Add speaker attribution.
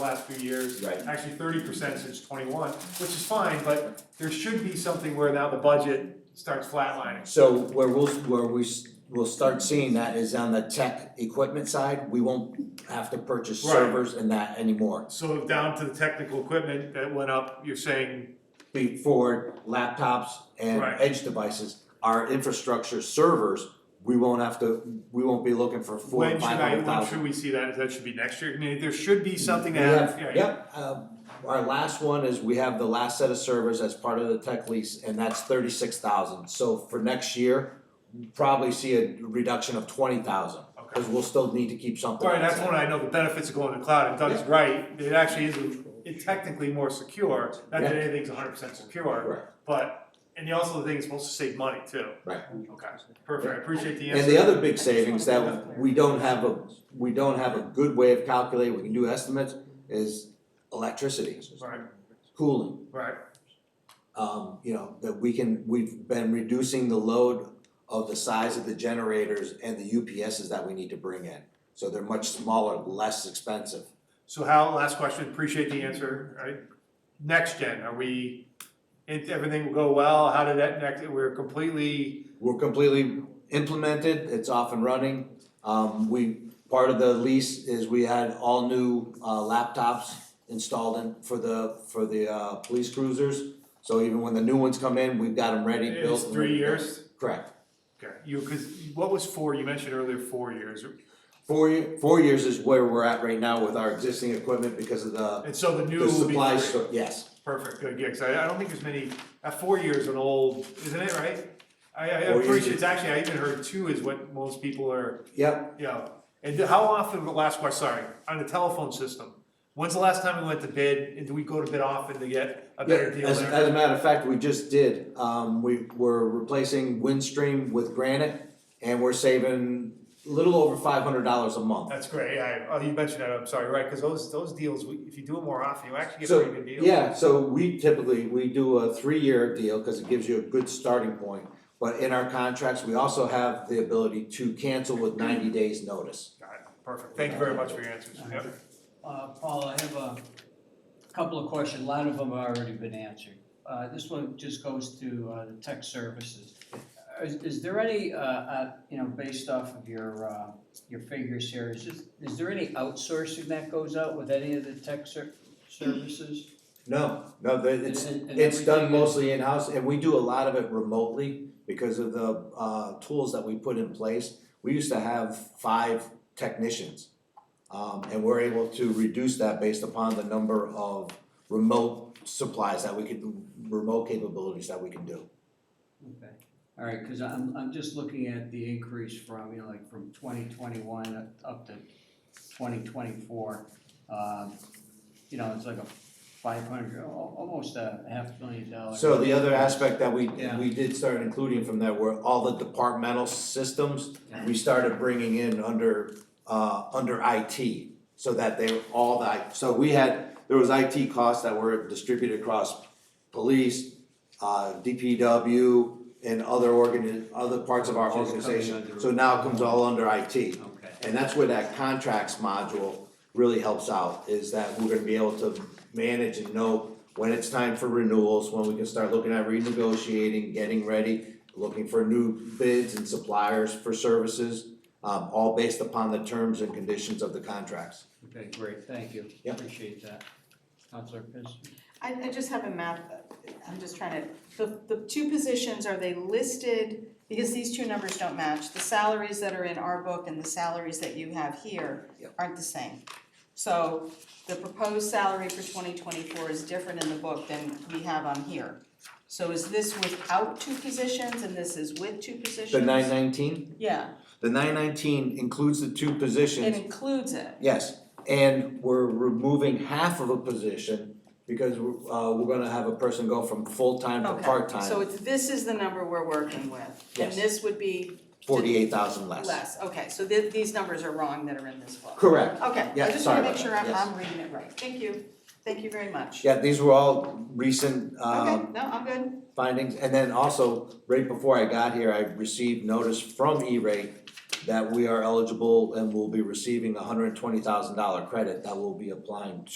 Speaker 1: last few years.
Speaker 2: Right.
Speaker 1: Actually thirty percent since twenty-one, which is fine, but there should be something where now the budget starts flatlining.
Speaker 2: So where we'll, where we, s- we'll start seeing that is on the tech equipment side, we won't have to purchase
Speaker 1: Right.
Speaker 2: servers and that anymore.
Speaker 1: So down to the technical equipment that went up, you're saying,
Speaker 2: Before laptops and
Speaker 1: Right.
Speaker 2: edge devices, our infrastructure servers, we won't have to, we won't be looking for four,
Speaker 1: when should
Speaker 2: five
Speaker 1: I,
Speaker 2: hundred
Speaker 1: when
Speaker 2: thousand.
Speaker 1: should we see that, that should be next year, I mean, there should be something
Speaker 2: We
Speaker 1: to have,
Speaker 2: have,
Speaker 1: yeah.
Speaker 2: yep, um, our last one is we have the last set of servers as part of the tech lease and that's thirty-six thousand. So for next year, probably see a reduction of twenty thousand, cause we'll still need to keep something.
Speaker 1: Alright, that's
Speaker 2: outside.
Speaker 1: when I know the benefits of going to the cloud, and Doug's right, it actually is, it's technically more secure, not that
Speaker 2: Yeah.
Speaker 1: anything's hundred percent secure,
Speaker 2: Right,
Speaker 1: but, and the also the thing is supposed to save money too.
Speaker 2: Right.
Speaker 1: Okay, perfect, I appreciate the answer.
Speaker 2: and the other big savings that we don't have a, we don't have a good way of calculating, we can do estimates, is electricity,
Speaker 1: Right,
Speaker 2: cooling.
Speaker 1: right,
Speaker 2: Um, you know, that we can, we've been reducing the load of the size of the generators and the UPSs that we need to bring in. So they're much smaller, less expensive.
Speaker 1: so Hal, last question, appreciate the answer, right? Next gen, are we, it, everything will go well, how did that next, we're completely,
Speaker 2: We're completely implemented, it's off and running. Um, we, part of the lease is we had all new uh laptops installed in for the, for the uh police cruisers. So even when the new ones come in, we've got them ready, built.
Speaker 1: it's
Speaker 2: and
Speaker 1: three
Speaker 2: ready to go.
Speaker 1: years?
Speaker 2: Correct.
Speaker 1: Okay, you, cause what was four, you mentioned earlier four years,
Speaker 2: Four, ye- four years is where we're at right now with our existing equipment because of the,
Speaker 1: and so the new
Speaker 2: the
Speaker 1: will be
Speaker 2: supply
Speaker 1: three.
Speaker 2: store, yes.
Speaker 1: Perfect, good, yeah, 'cause I, I don't think there's many, at four years an old, isn't it, right? I, I
Speaker 2: Four years
Speaker 1: appreciate,
Speaker 2: is-
Speaker 1: it's actually, I even heard two is what most people are,
Speaker 2: Yep,
Speaker 1: you know. And how often, last question, sorry, on the telephone system, when's the last time we went to bid, and do we go to bid often to get a
Speaker 2: Yeah,
Speaker 1: better deal
Speaker 2: as,
Speaker 1: there?
Speaker 2: as a matter of fact, we just did, um, we were replacing Windstream with Granite, and we're saving a little over five hundred dollars a month.
Speaker 1: That's great, I, oh, you mentioned that, I'm sorry, right, cause those, those deals, we- if you do it more often, you actually get
Speaker 2: So,
Speaker 1: pretty good deals.
Speaker 2: Yeah, so we typically, we do a three-year deal, cause it gives you a good starting point, but in our contracts, we also have the ability to cancel with ninety days' notice.
Speaker 1: Got it, perfect, thank you very much for your answers,
Speaker 2: Uh-huh.
Speaker 1: Yep.
Speaker 3: Uh, Paul, I have a couple of questions, a lot of them have already been answered. Uh, this one just goes to, uh, the tech services. Is, is there any, uh, uh, you know, based off of your, uh, your figures here, is this, is there any outsourcing that goes out with any of the tech ser- services?
Speaker 2: No, no, the- it's,
Speaker 3: And- and
Speaker 2: it's done
Speaker 3: everything is-
Speaker 2: mostly in-house, and we do a lot of it remotely because of the, uh, tools that we put in place. We used to have five technicians, um, and we're able to reduce that based upon the number of remote supplies that we could, remote capabilities that we can do.
Speaker 3: Okay, all right, cause I'm, I'm just looking at the increase from, you know, like from twenty twenty-one up to twenty twenty-four. Um, you know, it's like a five hundred, almost a half million dollar.
Speaker 2: So the other aspect that we,
Speaker 3: Yeah.
Speaker 2: we did start including from that were all the departmental systems, we started bringing in under, uh, under IT. So that they were all the, I- so we had, there was IT costs that were distributed across police, uh, DPW and other organi- other parts of our
Speaker 3: Which is coming
Speaker 2: organization.
Speaker 3: under-
Speaker 2: So now it comes all under IT.
Speaker 3: Okay,
Speaker 2: And that's where that contracts module really helps out, is that we're gonna be able to manage and know when it's time for renewals, when we can start looking at renegotiating, getting ready, looking for new bids and suppliers for services, um, all based upon the terms and conditions of the contracts.
Speaker 3: okay, great, thank you,
Speaker 2: Yeah.
Speaker 3: appreciate that. Counselor Piss?
Speaker 4: I, I just have a map, I'm just trying to, the, the two positions, are they listed? Because these two numbers don't match, the salaries that are in our book and the salaries that you have here
Speaker 2: Yep.
Speaker 4: aren't the same. So the proposed salary for twenty twenty-four is different in the book than we have on here. So is this without two positions and this is with two positions?
Speaker 2: The nine nineteen,
Speaker 4: Yeah,
Speaker 2: the nine nineteen includes the two
Speaker 4: it
Speaker 2: positions,
Speaker 4: includes it,
Speaker 2: yes, and we're removing half of a position because we're, uh, we're gonna have a person go from full-time to
Speaker 4: okay,
Speaker 2: part-time,
Speaker 4: so it's, this is the number we're working with.
Speaker 2: Yes.
Speaker 4: And this would be
Speaker 2: forty-eight thousand
Speaker 4: less, okay, so thi- these numbers are wrong that are in this book.
Speaker 2: Correct.
Speaker 4: Okay,
Speaker 2: Yeah,
Speaker 4: I just
Speaker 2: sorry
Speaker 4: wanna make
Speaker 2: about
Speaker 4: sure
Speaker 2: that,
Speaker 4: I'm,
Speaker 2: yes.
Speaker 4: I'm reading it right. Thank you, thank you very much.
Speaker 2: Yeah, these were all recent uh,
Speaker 4: Okay, no, I'm good.
Speaker 2: findings, and then also, right before I got here, I received notice from E-rate that we are eligible and will be receiving a hundred and twenty thousand dollar credit that will be applying